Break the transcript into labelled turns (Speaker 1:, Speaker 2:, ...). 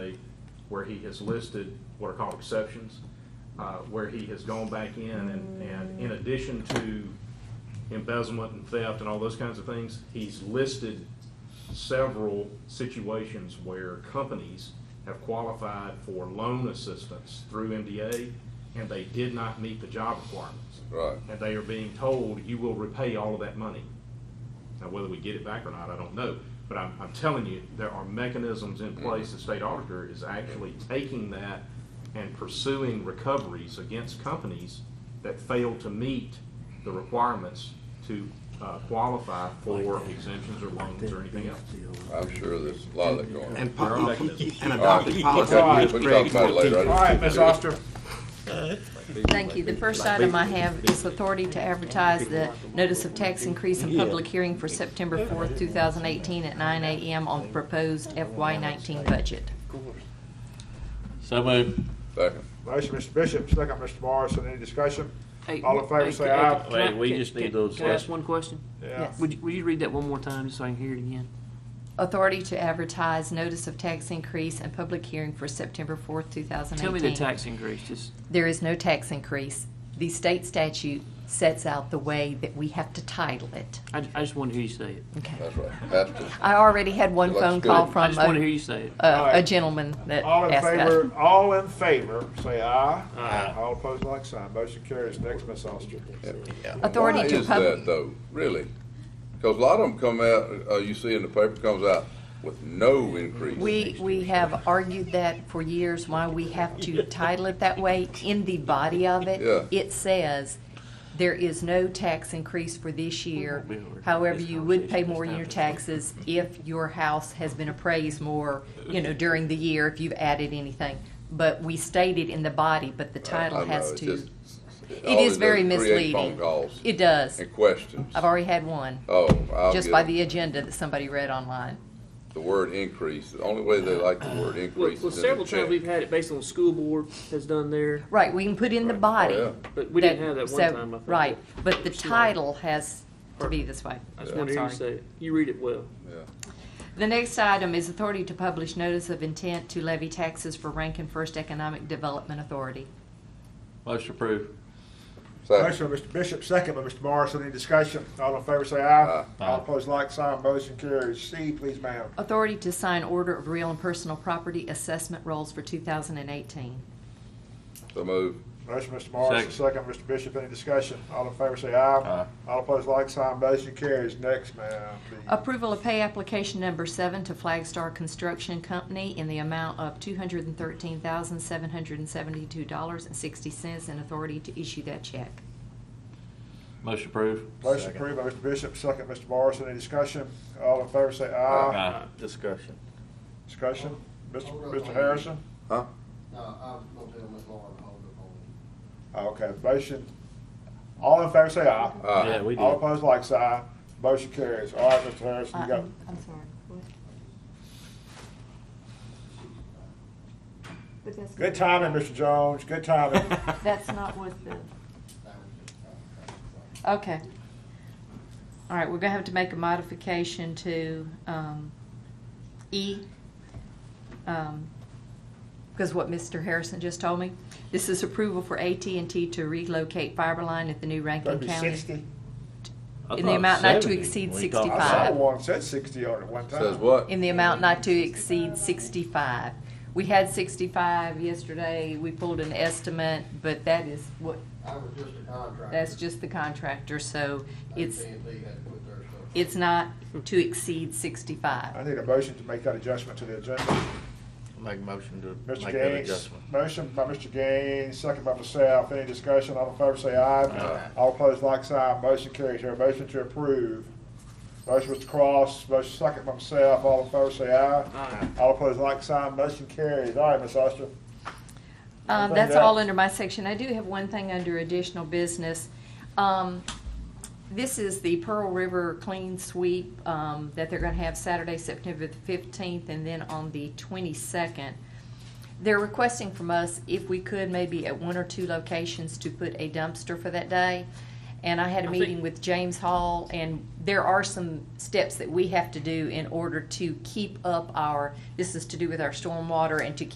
Speaker 1: where he has listed what are called exceptions, uh, where he has gone back in and, and in addition to embezzlement and theft and all those kinds of things, he's listed several situations where companies have qualified for loan assistance through MDA and they did not meet the job requirements.
Speaker 2: Right.
Speaker 1: And they are being told, you will repay all of that money. Now, whether we get it back or not, I don't know, but I'm, I'm telling you, there are mechanisms in place, the state auditor is actually taking that and pursuing recoveries against companies that fail to meet the requirements to, uh, qualify for exemptions or loans or anything else.
Speaker 2: I'm sure there's a lot of that going on.
Speaker 3: And, po- uh, and adopting
Speaker 2: All
Speaker 3: policy.
Speaker 2: right,
Speaker 3: is
Speaker 2: We'll talk
Speaker 3: Greg
Speaker 2: about it later. I
Speaker 3: Ortiz.
Speaker 2: just-
Speaker 1: All right, Ms. Oster,
Speaker 4: Thank you. The first item I have is authority to advertise the notice of tax increase in public hearing for September fourth, two thousand eighteen at nine AM on the proposed FY nineteen budget.
Speaker 5: So moved.
Speaker 2: Second.
Speaker 6: Motion, Mr. Bishop, second, Mr. Morrison, any discussion?
Speaker 7: Hey,
Speaker 6: All in favor,
Speaker 7: hey,
Speaker 6: say
Speaker 7: can I-
Speaker 6: aye.
Speaker 7: can I-
Speaker 5: Wait, we
Speaker 7: can-
Speaker 5: just need
Speaker 7: can-
Speaker 5: those
Speaker 7: Can I ask
Speaker 5: last-
Speaker 7: one question?
Speaker 6: Yeah.
Speaker 7: Would you, would you read that one more time, just so I can hear it again?
Speaker 4: Authority to advertise notice of tax increase and public hearing for September fourth, two thousand eighteen.
Speaker 7: Tell me the tax increase, just,
Speaker 4: There is no tax increase. The state statute sets out the way that we have to title it.
Speaker 7: I, I just want to hear you say it.
Speaker 4: Okay.
Speaker 2: That's right. That's the-
Speaker 4: I already had one
Speaker 2: Looks
Speaker 4: phone call
Speaker 2: good.
Speaker 7: I
Speaker 4: from
Speaker 7: just want to hear
Speaker 4: a,
Speaker 7: you say it.
Speaker 4: a-
Speaker 6: right.
Speaker 4: a gentleman that
Speaker 6: All in
Speaker 4: asked that.
Speaker 6: favor, all in favor, say aye. Aye. All opposed, like sign, motion carries, next, Ms. Oster.
Speaker 4: Authority to
Speaker 2: Why is that
Speaker 4: public.
Speaker 2: though, really? Because a lot of them come out, uh, you see in the paper, comes out with no increase.
Speaker 4: We, we have argued that for years, why we have to title it that way. In the body of it,
Speaker 2: Yeah.
Speaker 4: it says, there is no tax increase for this year. However, you would pay more in your taxes if your house has been appraised more, you know, during the year, if you've added anything. But we stated in the body, but the
Speaker 2: Uh, I
Speaker 4: title
Speaker 2: know,
Speaker 4: has
Speaker 2: it's
Speaker 4: to,
Speaker 2: just- all
Speaker 4: it is
Speaker 2: does
Speaker 4: very
Speaker 2: create
Speaker 4: misleading.
Speaker 2: Phone calls
Speaker 4: It does.
Speaker 2: and questions.
Speaker 4: I've already had one,
Speaker 2: Oh, I'll
Speaker 4: just by
Speaker 2: get it.
Speaker 4: the agenda that somebody read online.
Speaker 2: The word increase, the only way they like the word
Speaker 7: Well,
Speaker 2: increase is in
Speaker 7: well,
Speaker 2: the
Speaker 7: several times
Speaker 2: check.
Speaker 7: we've had it based on school board has done there,
Speaker 4: Right, we can put in the
Speaker 2: Right.
Speaker 4: body.
Speaker 2: Oh, yeah.
Speaker 7: but we didn't
Speaker 4: that-
Speaker 7: have that
Speaker 4: so-
Speaker 7: one time, I think.
Speaker 4: Right, but the
Speaker 7: Sorry.
Speaker 4: title has to be this way.
Speaker 7: I just
Speaker 4: I'm
Speaker 7: want to hear you
Speaker 4: sorry.
Speaker 7: say it. You read it well.
Speaker 2: Yeah.
Speaker 4: The next item is authority to publish notice of intent to levy taxes for Rankin First Economic Development Authority.
Speaker 5: Motion approved.
Speaker 2: Second.
Speaker 6: Motion by Mr. Bishop, second by Mr. Morrison, any discussion? All in favor, say aye.
Speaker 5: Aye.
Speaker 6: All opposed, like sign, motion carries, C, please, ma'am.
Speaker 4: Authority to sign order of real and personal property assessment rolls for 2018.
Speaker 2: So move.
Speaker 6: Motion, Mr. Morrison, second, Mr. Bishop, any discussion? All in favor, say aye.
Speaker 5: Aye.
Speaker 6: All opposed, like sign, motion carries, next, ma'am. D.
Speaker 4: Approval of pay application number seven to Flagstar Construction Company in the amount of $213,772.60 and authority to issue that check.
Speaker 5: Motion approved.
Speaker 6: Motion approved by Mr. Bishop, second, Mr. Morrison, any discussion? All in favor, say aye.
Speaker 5: Aye.
Speaker 3: Discussion.
Speaker 6: Discussion, Mr. Mr. Harrison?
Speaker 2: Huh?
Speaker 8: No, I was gonna tell Miss Lauren to hold up on it.
Speaker 6: Okay, motion, all in favor say aye.
Speaker 2: Aye.
Speaker 5: Yeah, we
Speaker 6: All
Speaker 5: did.
Speaker 6: opposed, like sign. Motion carries. All right, Mr. Harrison, you got,
Speaker 4: I'm I'm sorry, what? But that's
Speaker 6: good
Speaker 4: not-
Speaker 6: timing, Mr. Jones, good timing.
Speaker 4: That's not what the. Okay. All right, we're gonna have to make a modification to, um, E. Um, because what Mr. Harrison just told me, this is approval for AT&T to relocate fiber line at the new Rankin
Speaker 6: That'd be
Speaker 4: County.
Speaker 6: sixty.
Speaker 5: I
Speaker 4: In the
Speaker 5: thought
Speaker 4: amount not to
Speaker 5: 70.
Speaker 4: exceed
Speaker 5: We
Speaker 6: I
Speaker 5: thought-
Speaker 6: saw
Speaker 4: 65.
Speaker 6: one said sixty on it one time.
Speaker 2: Says what?
Speaker 4: in the amount not to exceed sixty-five. We had sixty-five yesterday, we pulled an estimate, but that is what,
Speaker 8: I was just a contractor.
Speaker 4: that's just the contractor, so it's,
Speaker 8: AT&T had to put their stuff.
Speaker 4: it's not to exceed sixty-five.
Speaker 6: I need a motion to make that adjustment to the agenda.
Speaker 3: Make a motion to
Speaker 6: Mr.
Speaker 3: make that
Speaker 6: Gaines,
Speaker 3: adjustment.
Speaker 6: motion by Mr. Gaines, second by myself. Any discussion? All in favor say aye.
Speaker 3: Aye.
Speaker 6: All opposed, like sign. Motion carries. Here, motion to approve. Motion Mr. Cross, motion second by myself. All in favor say aye.
Speaker 7: Aye.
Speaker 6: All opposed, like sign. Motion carries. All right, Ms. Oster.
Speaker 4: Um,
Speaker 6: Find
Speaker 4: that's all
Speaker 6: out.
Speaker 4: under my section. I do have one thing under additional business. Um, this is the Pearl River Clean Sweep, um, that they're gonna have Saturday, September the fifteenth, and then on the twenty-second. They're requesting from us if we could, maybe at one or two locations, to put a dumpster for that day. And I had a
Speaker 7: I think-
Speaker 4: meeting with James Hall, and there are some steps that we have to do in order to keep up our, this is to do with our stormwater and to